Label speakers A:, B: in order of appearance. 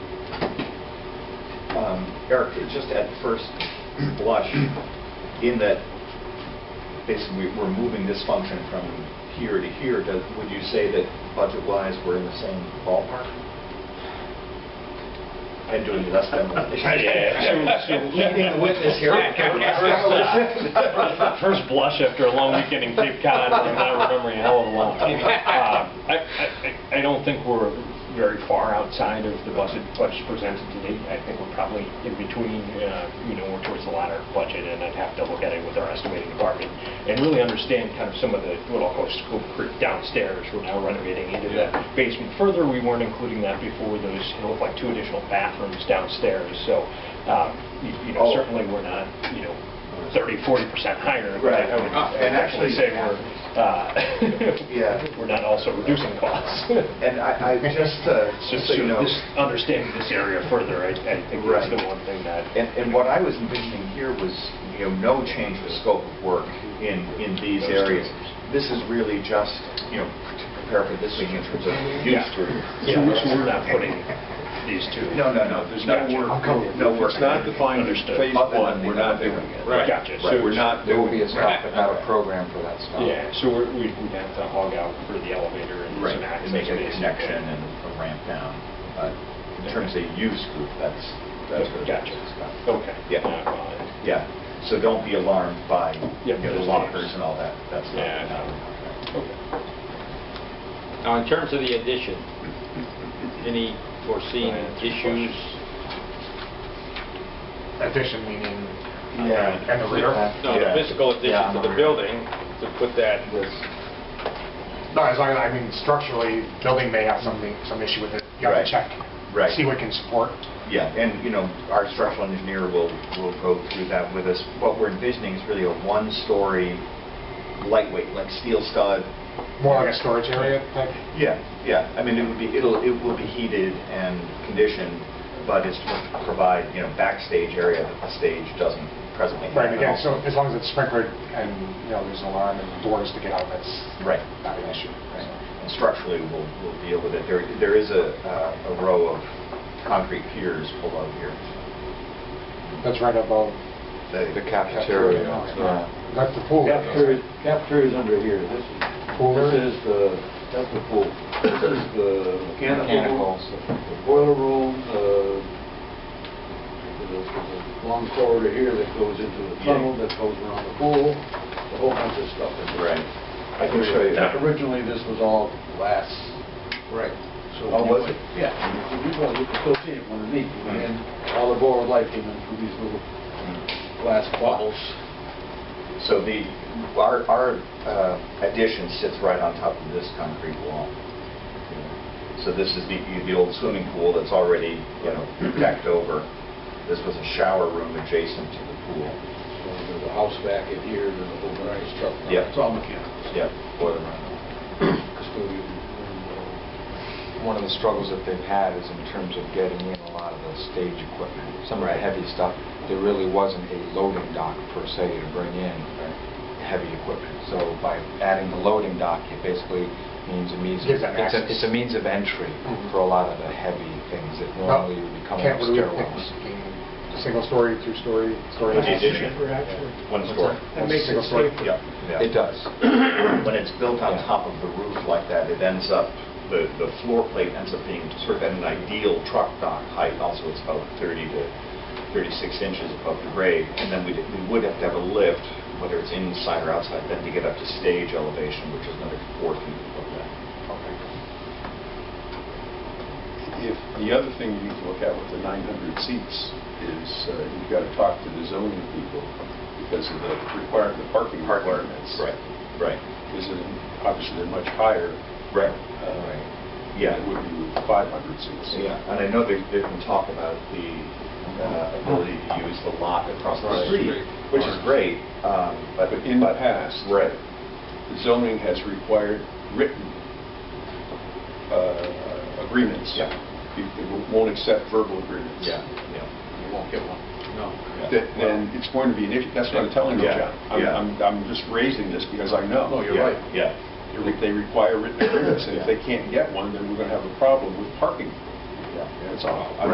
A: um, Eric, it just at first blush, in that basically we- we're moving this function from here to here, does- would you say that budget-wise, we're in the same ballpark? I'm doing less than one.
B: Leading the witness here.
C: First blush after a long weekend in Cape Cod, and I remember a hell of a long time. Uh, I, I- I, I don't think we're very far outside of the budget, budget presented today. I think we're probably in between, uh, you know, we're towards the latter budget, and I'd have to look at it with our estimating department and really understand kind of some of the, what I'll call scope creep downstairs. We're now renovating into the basement further. We weren't including that before. Those, it looked like two additional bathrooms downstairs, so, um, you you know,
A: Oh.
C: certainly we're not, you know, 30, 40% higher. but
A: Right.
C: I would
A: Ah, and
C: actually
A: actually-
C: say we're,
A: Yeah.
C: uh, we're not also reducing costs.
A: And I, I just, uh,
C: Just
A: just
C: to
A: so you know.
C: just understanding this area further, I I think that's
A: Right.
C: the one thing that,
A: And, and what I was envisioning here was, you know, no change of scope of work in, in these
C: Those
A: areas.
C: two.
A: This is really just, you know, to prepare for this week in terms of youth
C: Yeah.
A: group.
C: so we- so we're not putting these two.
A: No, no, no, there's no
C: Gotcha.
A: work, no work.
D: It's not defined as
C: Understood.
D: phase
A: Other than
D: one, we're not doing it.
A: Right.
C: Gotcha.
A: Right.
C: So
D: We're not
E: There will
D: doing
E: be
D: it.
E: a stop, but not a program for that stop.
C: Yeah, so we're- we'd we'd have to hog out for the elevator and
A: um, Right,
C: some access.
A: and make a
C: space.
A: connection and a ramp down. But in terms of youth group, that's, that's what it's
C: Gotcha.
A: about.
C: Okay.
A: Yeah.
C: Not mine.
A: Yeah, so don't be alarmed by, you
C: Yep,
A: know, the
C: those
A: lockers
C: names.
A: and all that, Um, that's not.
C: Yeah.
A: not-
C: Okay.
F: Now, in terms of the addition, any foreseen
C: Right.
F: issues?
E: Addition meaning.
A: Yeah.
E: And the rear?
F: No, the
A: Yeah.
F: physical
E: Yeah,
F: addition to the
E: no.
F: building, to put that,
G: No, as long as, I mean, structurally, building may have something, some issue with it. You have
A: Right.
G: to check.
A: Right.
G: See what can support.
A: Yeah, and, you know, our structural engineer will, will go through that with us. What we're envisioning is really a one-story lightweight, like steel stud.
G: More like a storage area type.
A: Yeah, yeah, I mean, it would be, it'll, it will be heated and conditioned, but it's to provide, you know, backstage area that the stage doesn't presently have.
G: Right, and again, so as long as it's sprinkled and, you know, there's an alarm and doors to get out, that's
A: Right.
G: not an issue.
A: And structurally, we'll, we'll deal with it. There, there is a, uh, a row of concrete piers below here.
G: That's right above.
A: They-
E: The cafeteria.
G: Yeah. That's the pool.
H: Cafeteria, cafeteria's under here. This is,
G: Pool
H: this
G: area?
H: is the, that's the pool. This is the mechanical room,
E: Mechanicals.
H: the boiler room, the, there's a- there's a long corridor here that goes into the tunnel that goes around the pool, a whole bunch of stuff. in there.
A: Right.
H: I can show you. Originally, this was all glass.
E: Right.
H: So
A: Oh, was it?
H: Yeah. You can you can still see it when it leaks, and all the boiler light came in through these little glass bubbles.
A: So the, our, our uh, addition sits right on top of this concrete wall. So this is the, the old swimming pool that's already, you know, decked over. This was a shower room adjacent to the pool.
H: So There's a house back in here, there's a whole bunch of stuff.
A: Yep.
H: It's all mechanical.
A: Yep, boiler room.
H: custodian. uh,
E: One of the struggles that they've had is in terms of getting in a lot of the stage equipment, some of the
A: Right.
E: heavy stuff. There really wasn't a loading dock per se to bring in heavy equipment. So by adding the loading dock, it basically means a means,
G: Gives them
E: it's a-
G: access.
E: it's a means of entry
G: Mhm.
E: for a lot of the heavy things that
G: Well,
E: normally would be coming up
G: Can't believe it
E: stairwells.
G: Single story, two story, story.
A: With the addition. One story.
G: That makes it safer.
A: Yep. yeah.
E: It does.
A: When it's built on top of the roof like that, it ends up, the, the floor plate ends up being sort of at an ideal truck dock height. Also, it's about 30 to 36 inches above the grade. And then we, we would have to have a lift, whether it's inside or outside, then to get up to stage elevation, which is another four feet above that.
D: If, the other thing you need to look at with the 900 seats is uh, you've got to talk to the zoning people because of the require the parking requirements.
A: Right, right,
D: Because they're- obviously they're much higher.
A: right.
D: uh, than
A: Yeah.
D: It would be with 500 seats.
A: Yeah, and I know there's, there's been talk about the uh, ability to use the lot across the
D: Right.
A: street, which is great, um, but...
D: But in the past-
A: Right,
D: The zoning has required written uh, agreements.
A: Yeah.
D: You- They won't accept verbal agreements.
A: yeah, yeah.
F: you won't get one.
D: That- Then it's going to be an issue. That's what I'm telling you,
A: Yeah,
D: John. I'm-
A: yeah.
D: I'm, I'm just raising this because I know.
F: No, you're
A: Yeah,
F: right.
A: Yeah.
D: If They require written agreements, and if they can't get one, then we're going to have a problem with parking.
A: yeah.
D: That's all. I'm